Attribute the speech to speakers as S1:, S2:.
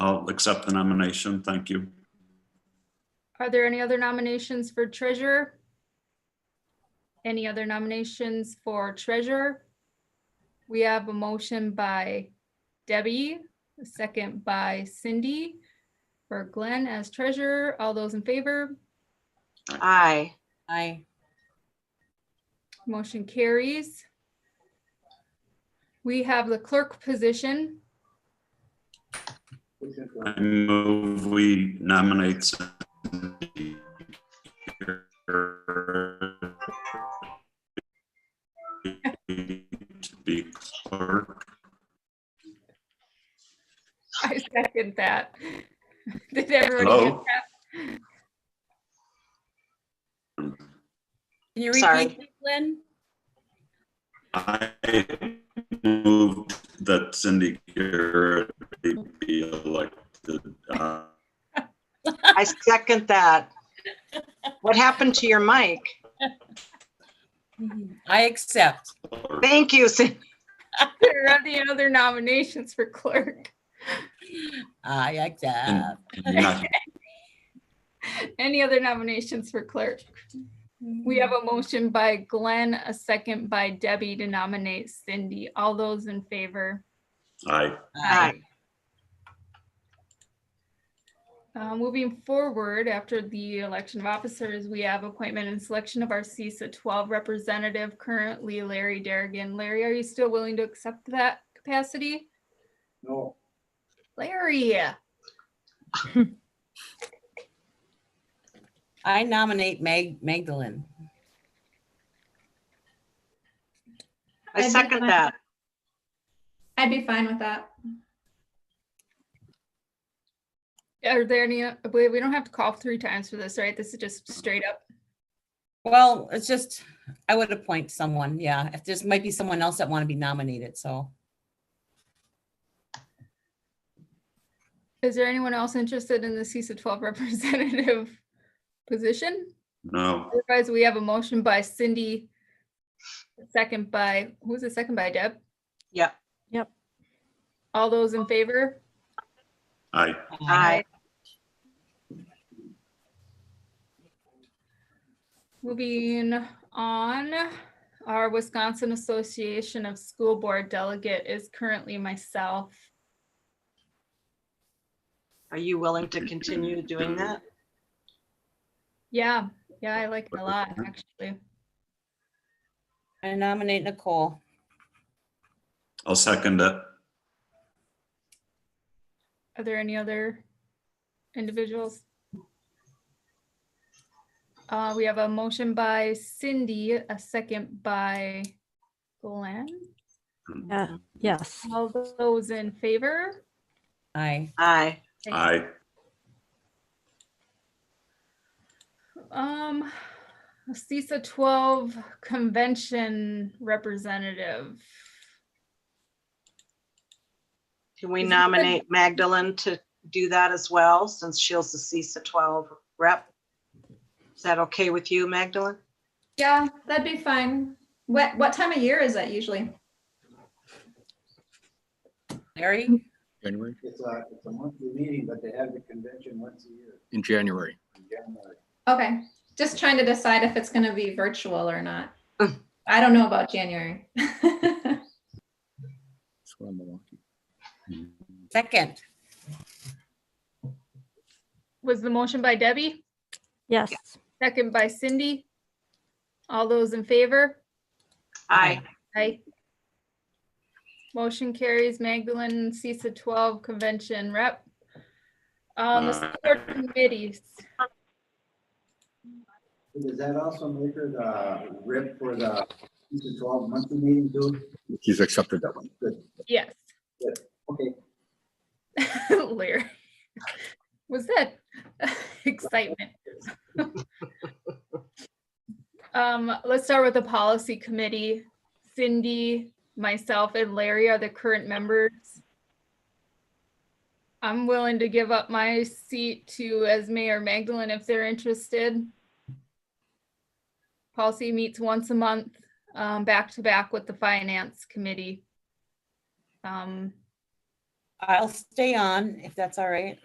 S1: I'll accept the nomination. Thank you.
S2: Are there any other nominations for treasurer? Any other nominations for treasurer? We have a motion by Debbie, a second by Cindy for Glenn as treasurer. All those in favor,
S3: Aye.
S4: Aye.
S2: motion carries. We have the clerk position.
S1: I move we nominate Cindy Gerber to be clerk.
S2: I second that. Did everyone?
S1: Hello?
S4: Can you
S3: Sorry.
S4: repeat, that, Lynn?
S1: I move that Cindy Garrett be elected. uh,
S3: I second that. What happened to your mic?
S4: Mm-hmm. I accept.
S1: clerk.
S3: Thank you, Cindy.
S2: Are there any other nominations for clerk?
S4: I accept.
S1: Not-
S2: Any other nominations for clerk? We have a motion by Glenn, a second by Debbie to nominate Cindy. All those in favor?
S1: Aye.
S3: Aye.
S2: Uh, Moving forward, after the election of officers, we have appointment and selection of our CISA 12 representative, currently Larry Derrigan. Larry, are you still willing to accept that capacity?
S5: No,
S2: Larry,
S4: I nominate Mag- Magdalene.
S3: I second that.
S6: I'd be fine with that.
S2: are there any, we we don't have to call three times for this, right? This is just straight up.
S4: Well, it's just, I would appoint someone, yeah. If there's might be someone else that want to be nominated, so.
S2: Is there anyone else interested in the CISA 12 representative position?
S1: No,
S2: Otherwise, we have a motion by Cindy. a Second by, who's the second by Deb?
S3: Yep.
S6: Yep.
S2: All those in favor?
S1: aye.
S3: Aye.
S2: Moving on, our Wisconsin Association of School Board Delegate is currently myself.
S3: Are you willing to continue doing that?
S2: Yeah, yeah, I like it a lot, actually.
S4: I nominate Nicole.
S1: I'll second it.
S2: Are there any other individuals? Uh, we have a motion by Cindy, a second by Glenn.
S6: Yeah, yes.
S2: All those in favor?
S4: Aye.
S3: Aye.
S1: Aye.
S2: Um, CISA twelve convention representative.
S3: Can we
S2: Is it-
S3: nominate Magdalene to do that as well, since she's the CISA 12 rep? Is that okay with you, Magdalene?
S6: Yeah, that'd be fine. What, what time of year is that usually?
S4: Larry?
S7: January,
S5: it's a, it's a monthly meeting, but they have the convention once a year
S7: in January.
S5: in January.
S6: Okay, just trying to decide if it's gonna be virtual or not. I don't know about January.
S7: That's what I'm Milwaukee.
S4: Second.
S2: Was the motion by Debbie,
S8: Yes,
S2: second by Cindy? All those in favor?
S3: Aye.
S2: Aye. Motion carries Magdalene CISA twelve convention rep. Um, the school board committees,
S5: Does that also make her the rip for the CISA 12 monthly meeting too?
S7: He's accepted that one.
S2: yes.
S5: Okay,
S2: Larry, was that excitement? Um, let's start with the policy committee. Cindy, myself, and Larry are the current members. I'm willing to give up my seat to Esme or Magdalene if they're interested. Policy meets once a month, um, back to back with the finance committee. Um,
S4: I'll stay on if that's all right.